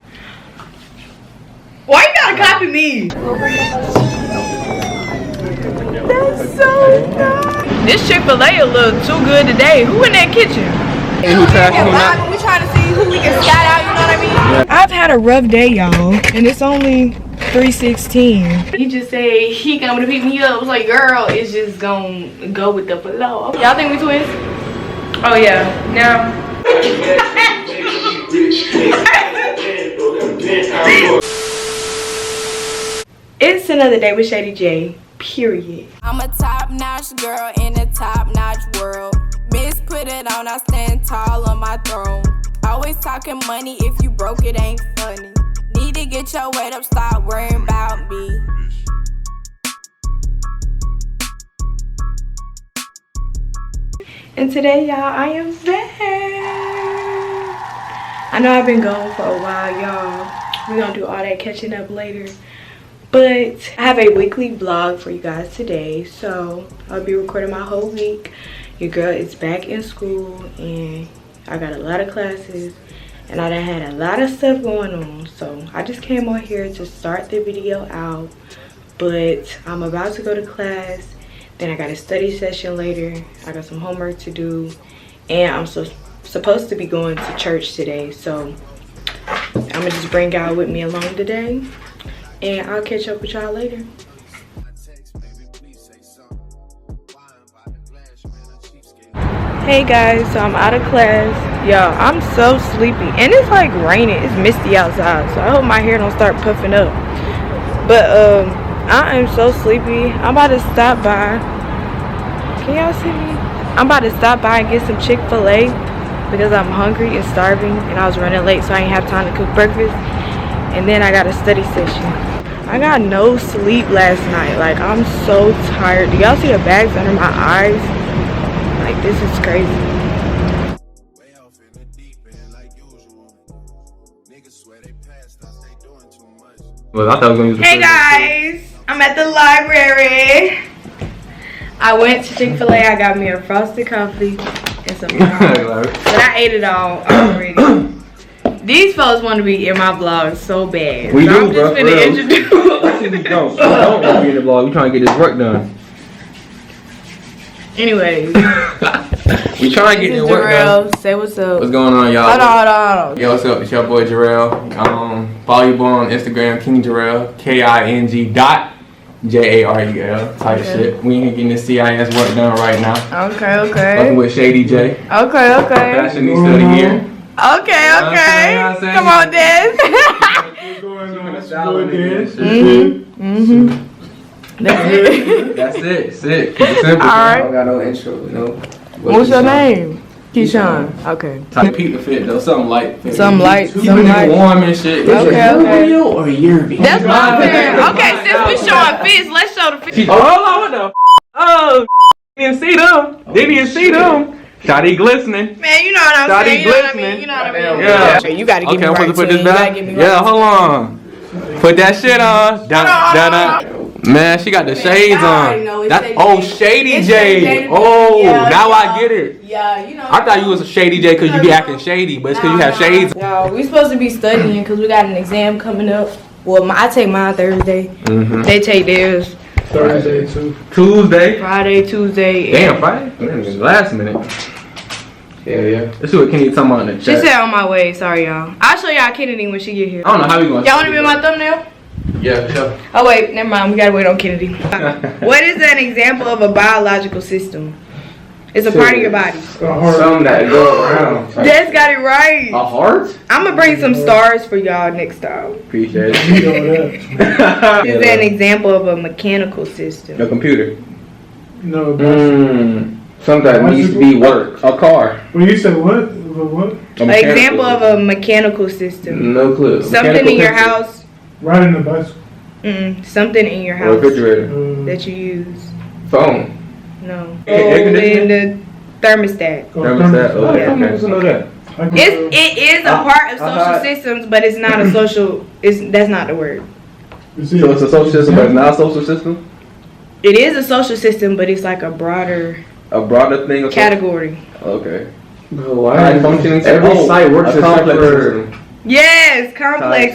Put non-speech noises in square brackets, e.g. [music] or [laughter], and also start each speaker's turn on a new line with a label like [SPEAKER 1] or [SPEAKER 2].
[SPEAKER 1] Why you gotta copy me? That's so nice. This Chick Fil A look too good today. Who in that kitchen?
[SPEAKER 2] Any traction or not?
[SPEAKER 1] We trying to see who we can scout out. You know what I mean? I've had a rough day, y'all, and it's only. 316. He just said he coming to pick me up. I was like, girl, it's just gonna go with the flow. Y'all think we twins? Oh yeah. Now it's another day with Shady J. Period.
[SPEAKER 3] I'm a top notch girl in a top notch world. Miss put it on, I stand tall on my throne. Always talking money, if you broke, it ain't funny. Need to get your weight up, stop worrying about me.
[SPEAKER 1] And today, y'all, I am back. I know I've been gone for a while, y'all. We're gonna do all that catching up later. But I have a weekly vlog for you guys today. So I'll be recording my whole week. Your girl is back in school and I got a lot of classes and I done had a lot of stuff going on. So I just came on here to start the video out. But I'm about to go to class. Then I got a study session later. I got some homework to do. And I'm so, supposed to be going to church today. So I'm going to just bring y'all with me along today. And I'll catch up with y'all later. Hey guys, so I'm out of class. Y'all, I'm so sleepy. And it's like raining. It's misty outside. So I hope my hair don't start puffing up. But um I am so sleepy. I'm about to stop by. Can y'all see me? I'm about to stop by and get some Chick-fil-A because I'm hungry and starving and I was running late so I didn't have time to cook breakfast. And then I got a study session. I got no sleep last night. Like I'm so tired. Do y'all see the bags under my eyes? Like this is crazy.
[SPEAKER 4] Way off in the deep end like usual. Niggas swear they passed us, they doing too much.
[SPEAKER 2] Well, I thought I was gonna use the
[SPEAKER 1] Hey
[SPEAKER 2] fridge.
[SPEAKER 1] guys, I'm at the library. I went to Chick Fil A. I got me a frosted coffee and
[SPEAKER 2] [laughs]
[SPEAKER 1] some. brownies.
[SPEAKER 2] Like,
[SPEAKER 1] but I ate it all already. These folks want to be in my vlog so bad.
[SPEAKER 2] We
[SPEAKER 1] so
[SPEAKER 2] do,
[SPEAKER 1] I'm just
[SPEAKER 2] bruh,
[SPEAKER 1] gonna
[SPEAKER 2] for real.
[SPEAKER 1] introduce. [laughs]
[SPEAKER 2] we don't. We don't want to be in the vlog. We trying to get this work done. [laughs]
[SPEAKER 1] Anyways,
[SPEAKER 2] we
[SPEAKER 1] this
[SPEAKER 2] trying to get
[SPEAKER 1] is
[SPEAKER 2] this work done.
[SPEAKER 1] Jarrell. Say what's up.
[SPEAKER 2] What's going on, y'all?
[SPEAKER 1] Hold on, hold on, hold on.
[SPEAKER 2] Yo, what's up? It's your boy Jarrell. Um, follow your boy on Instagram, King Jarrell, K I N G dot J A R E L type
[SPEAKER 1] Okay.
[SPEAKER 2] shit. We ain't getting this CIS work done right now.
[SPEAKER 1] Okay,
[SPEAKER 2] Fucking
[SPEAKER 1] okay.
[SPEAKER 2] with Shady J,
[SPEAKER 1] Okay, okay.
[SPEAKER 2] fashionista of the year.
[SPEAKER 1] Okay,
[SPEAKER 2] what I'm saying, what I'm
[SPEAKER 1] okay.
[SPEAKER 2] saying.
[SPEAKER 1] Come on, Des. Mm-hmm.
[SPEAKER 2] [laughs] That's it. Sick.
[SPEAKER 1] [laughs]
[SPEAKER 2] It's simple.
[SPEAKER 1] Alright.
[SPEAKER 2] I don't got no intro. No.
[SPEAKER 1] What's your name? Keyshawn. Okay.
[SPEAKER 2] Type Pete the Fit though. Something light. fit.
[SPEAKER 1] Some light,
[SPEAKER 2] Keep
[SPEAKER 1] some
[SPEAKER 2] it
[SPEAKER 1] light.
[SPEAKER 2] warm and shit.
[SPEAKER 1] Okay, okay.
[SPEAKER 5] or Yerby?
[SPEAKER 1] That's what I'm saying.
[SPEAKER 2] Yeah.
[SPEAKER 1] Okay, since we showing fish, let's show the fish.
[SPEAKER 2] Oh, hold on, what the? F- oh, didn't see them. didn't even see them. Shotty glistening.
[SPEAKER 1] Man, you know what I'm
[SPEAKER 2] Shawty
[SPEAKER 1] saying. You know what I mean.
[SPEAKER 2] glistening.
[SPEAKER 1] You know what I mean.
[SPEAKER 2] Yeah.
[SPEAKER 1] Okay, You gotta give
[SPEAKER 2] Okay,
[SPEAKER 1] me
[SPEAKER 2] I'm
[SPEAKER 1] right.
[SPEAKER 2] supposed to put
[SPEAKER 1] Twin. You
[SPEAKER 2] this
[SPEAKER 1] gotta
[SPEAKER 2] back.
[SPEAKER 1] give me
[SPEAKER 2] Yeah,
[SPEAKER 1] right.
[SPEAKER 2] hold on. Put that shit on. Dun, dun, dun. Man, she got the shades
[SPEAKER 3] y'all already
[SPEAKER 2] on.
[SPEAKER 3] know it's
[SPEAKER 2] That-
[SPEAKER 3] Shady
[SPEAKER 2] oh,
[SPEAKER 3] J.
[SPEAKER 2] Shady
[SPEAKER 3] It's Shady
[SPEAKER 2] J.
[SPEAKER 3] J.
[SPEAKER 2] Oh,
[SPEAKER 3] Yeah,
[SPEAKER 2] now I
[SPEAKER 3] y'all.
[SPEAKER 2] get it.
[SPEAKER 3] Yeah, you know.
[SPEAKER 2] I thought you was a Shady J because you be acting shady, but it's because you have shades.
[SPEAKER 1] Y'all, we supposed to be studying because we got an exam coming up. Well, my, I take mine Thursday.
[SPEAKER 2] Mm-hmm.
[SPEAKER 1] They take theirs
[SPEAKER 5] Thursday too.
[SPEAKER 2] Tuesday.
[SPEAKER 1] Friday, Tuesday.
[SPEAKER 2] Damn, Friday. Man, last minute.
[SPEAKER 5] Yeah, yeah.
[SPEAKER 2] Let's see what Kenny talking about in the
[SPEAKER 1] She
[SPEAKER 2] chat.
[SPEAKER 1] said on my way. Sorry, y'all. I'll show y'all Kennedy when she get here.
[SPEAKER 2] I don't know how we going.
[SPEAKER 1] Y'all want to be my thumbnail?
[SPEAKER 2] Yeah, for sure.
[SPEAKER 1] Oh wait, never mind. We gotta wait on Kennedy.
[SPEAKER 2] [laughs]
[SPEAKER 1] what is an example of a biological system? It's a part of your body.
[SPEAKER 5] [laughs]
[SPEAKER 2] Some that go around.
[SPEAKER 1] Des got it right.
[SPEAKER 2] A heart?
[SPEAKER 1] I'm gonna bring some stars for y'all next time.
[SPEAKER 2] Appreciate
[SPEAKER 1] [laughs]
[SPEAKER 5] You know that.
[SPEAKER 1] This is an example of a mechanical system.
[SPEAKER 2] Your computer.
[SPEAKER 5] No, but
[SPEAKER 2] Mm, something that needs to be work. A car.
[SPEAKER 5] when you said what? What? what?
[SPEAKER 2] A
[SPEAKER 1] An
[SPEAKER 2] mechanical
[SPEAKER 1] example of
[SPEAKER 2] system.
[SPEAKER 1] a mechanical system.
[SPEAKER 2] No clue.
[SPEAKER 1] Something in your
[SPEAKER 2] Mechanical pencil.
[SPEAKER 1] house.
[SPEAKER 5] Riding a bicycle.
[SPEAKER 1] Mm, something in your
[SPEAKER 2] Or
[SPEAKER 1] house
[SPEAKER 2] refrigerator.
[SPEAKER 5] Uh,
[SPEAKER 1] that you use.
[SPEAKER 2] Phone.
[SPEAKER 1] No. Oh,
[SPEAKER 2] Air
[SPEAKER 1] in
[SPEAKER 2] conditioning?
[SPEAKER 1] the thermostat.
[SPEAKER 5] go
[SPEAKER 2] Thermostat.
[SPEAKER 5] thermos-
[SPEAKER 2] Oh,
[SPEAKER 1] Yeah.
[SPEAKER 2] yeah. Okay. so know that.
[SPEAKER 5] I can go-
[SPEAKER 1] It's it is a
[SPEAKER 2] Uh,
[SPEAKER 1] part of social
[SPEAKER 2] uh-huh.
[SPEAKER 1] systems, but it's not a social. It's that's not the word.
[SPEAKER 5] you see
[SPEAKER 2] So it's a social system, but it's
[SPEAKER 5] Yeah.
[SPEAKER 2] not a social system?
[SPEAKER 1] It is a social system, but it's like a broader
[SPEAKER 2] A broader thing? Of
[SPEAKER 1] category.
[SPEAKER 2] Okay.
[SPEAKER 6] Bro, why
[SPEAKER 2] Alright,
[SPEAKER 6] are
[SPEAKER 2] functioning
[SPEAKER 6] every
[SPEAKER 2] oh,
[SPEAKER 6] site works
[SPEAKER 2] a
[SPEAKER 6] except
[SPEAKER 2] complex
[SPEAKER 6] for
[SPEAKER 2] system.
[SPEAKER 1] Yes, complex